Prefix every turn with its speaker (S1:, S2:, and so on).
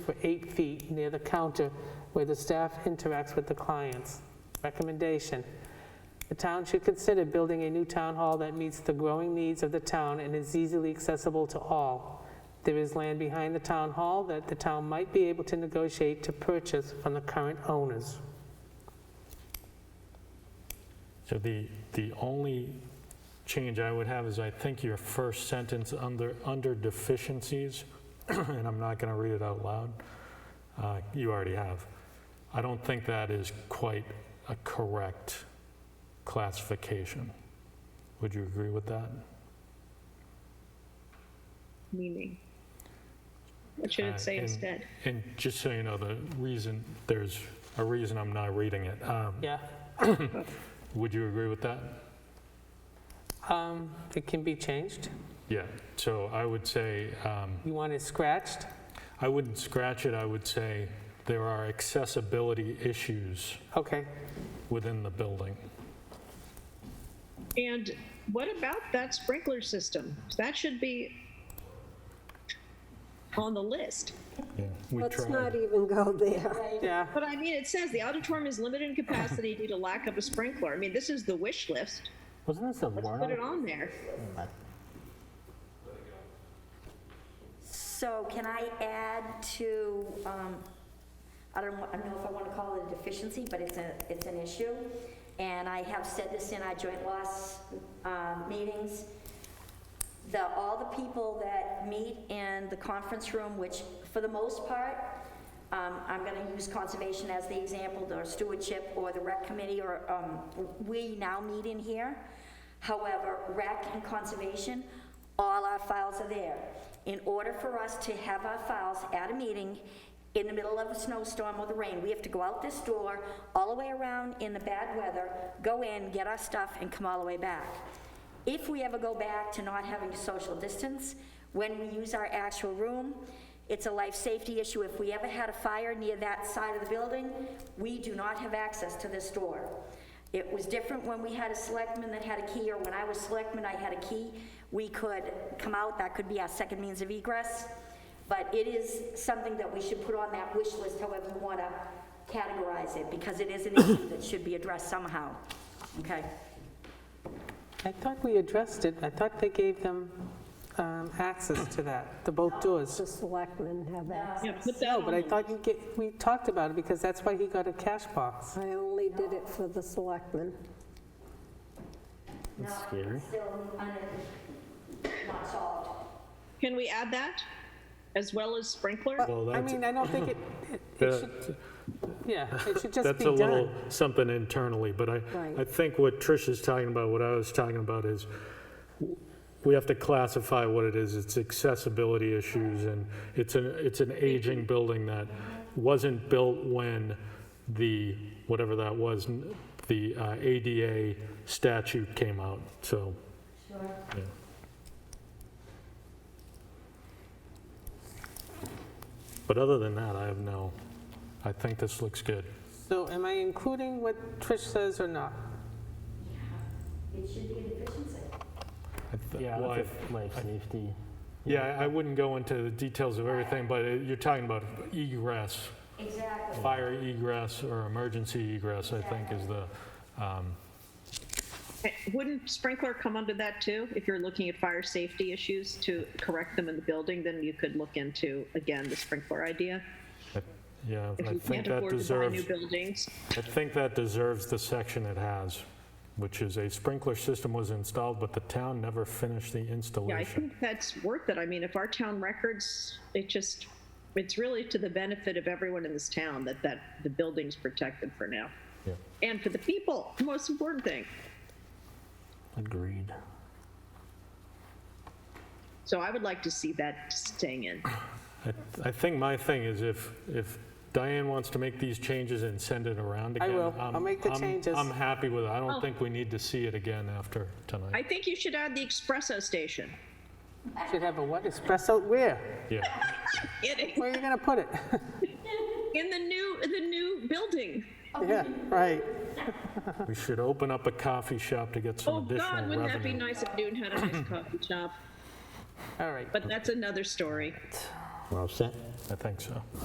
S1: for eight feet near the counter where the staff interacts with the clients. Recommendation, the town should consider building a new town hall that meets the growing needs of the town and is easily accessible to all. There is land behind the town hall that the town might be able to negotiate to purchase from the current owners.
S2: So the, the only change I would have is I think your first sentence under, under deficiencies, and I'm not going to read it out loud, uh, you already have. I don't think that is quite a correct classification. Would you agree with that?
S3: meaning? What should
S2: Uh,
S3: it say
S2: in-
S3: instead?
S2: And just so you know, the reason, there's a reason I'm not reading it. Um,
S1: Yeah,
S2: Would you agree with that?
S1: um, it can be changed.
S2: Yeah, so I would say, um,
S1: You want it scratched?
S2: I wouldn't scratch it, I would say there are accessibility issues
S1: Okay,
S2: within the building.
S3: And what about that sprinkler system? That should be on the list.
S2: We
S4: Let's not
S2: tried,
S4: even go there.
S1: yeah,
S3: But I mean, it says the auditorium is limited in capacity due to lack of a sprinkler. I mean, this is the wish list.
S5: Wasn't this a
S3: Let's
S5: warrant?
S3: put it on there.
S6: So can I add to, um, I don't, wa- I don't know if I want to call it a deficiency, but it's a, it's an issue. And I have said this in our joint loss, um, meetings. The, all the people that meet in the conference room, which for the most part, um, I'm gonna use conservation as the example, or stewardship, or the rec committee, or, um, we now meet in here. However, rec and conservation, all our files are there. In order for us to have our files at a meeting in the middle of a snowstorm or the rain, we have to go out this door, all the way around in the bad weather, go in, get our stuff, and come all the way back. If we ever go back to not having to social distance, when we use our actual room, it's a life safety issue. If we ever had a fire near that side of the building, we do not have access to this door. It was different when we had a selectman that had a key, or when I was selectman, I had a key. We could come out, that could be our second means of egress. But it is something that we should put on that wish list, however you want to categorize it, because it is an issue that should be addressed somehow, okay?
S1: I thought we addressed it. I thought they gave them um, access to that, the both doors.
S4: The selectmen have that.
S3: Yeah, put that
S1: No, but I
S3: on.
S1: thought you get, we talked about it because that's why he got a cash box.
S4: I only did it for the selectmen.
S6: No,
S5: That's scary.
S6: Still un- not solved.
S3: Can we add that? As well as sprinkler?
S2: Well,
S1: I
S2: that's-
S1: mean, I don't think it, it- it should, yeah, it should just
S2: that's
S1: be
S2: a little
S1: done.
S2: something internally, but I,
S4: Right.
S2: I think what Trish is talking about, what I was talking about is w- we have to classify what it is. It's accessibility issues and it's an, it's an aging building that wasn't built when the, whatever that was, n- the uh, ADA statute came out, so. Sure. But other than that, I have no, I think this looks good.
S1: So am I including what Trish says or not?
S6: It should be a deficiency.
S2: I th-
S5: Yeah,
S2: well, I-
S5: that's a life safety.
S2: Yeah, I I wouldn't go into the details of everything, but it- you're talking about egress,
S6: Exactly.
S2: fire egress or emergency egress, I think is the, um,
S3: Eh, Wouldn't sprinkler come under that too? If you're looking at fire safety issues to correct them in the building, then you could look into, again, the sprinkler idea.
S2: yeah,
S3: If
S2: I
S3: you
S2: think
S3: can't
S2: that
S3: afford to buy new
S2: deserves,
S3: buildings.
S2: I think that deserves the section it has, which is a sprinkler system was installed, but the town never finished the
S3: Yeah, I
S2: installation.
S3: think that's worth it. I mean, if our town records, it just, it's really to the benefit of everyone in this town that, that the building's protected for now.
S2: Yeah,
S3: And for the people, the most important thing.
S5: Agreed.
S3: So I would like to see that staying in.
S2: I I think my thing is if, if Diane wants to make these changes and send it around
S1: I
S2: again.
S1: will. I'll
S2: I'm-
S1: make the
S2: I'm-
S1: changes.
S2: I'm happy with it. I
S3: Oh.
S2: don't think we need to see it again after tonight.
S3: I think you should add the espresso station.
S1: Should have a what, espresso, where?
S2: Yeah.
S3: Kidding.
S1: Where are you going to put it?
S3: In the new, in the new building.
S1: Yeah, right.
S2: We should open up a coffee shop to get some
S3: Oh,
S2: additional
S3: God,
S2: revenue.
S3: wouldn't that be nice if Newton had a nice coffee shop?
S1: All right.
S3: But that's another story.
S5: We're all set?
S2: I think so.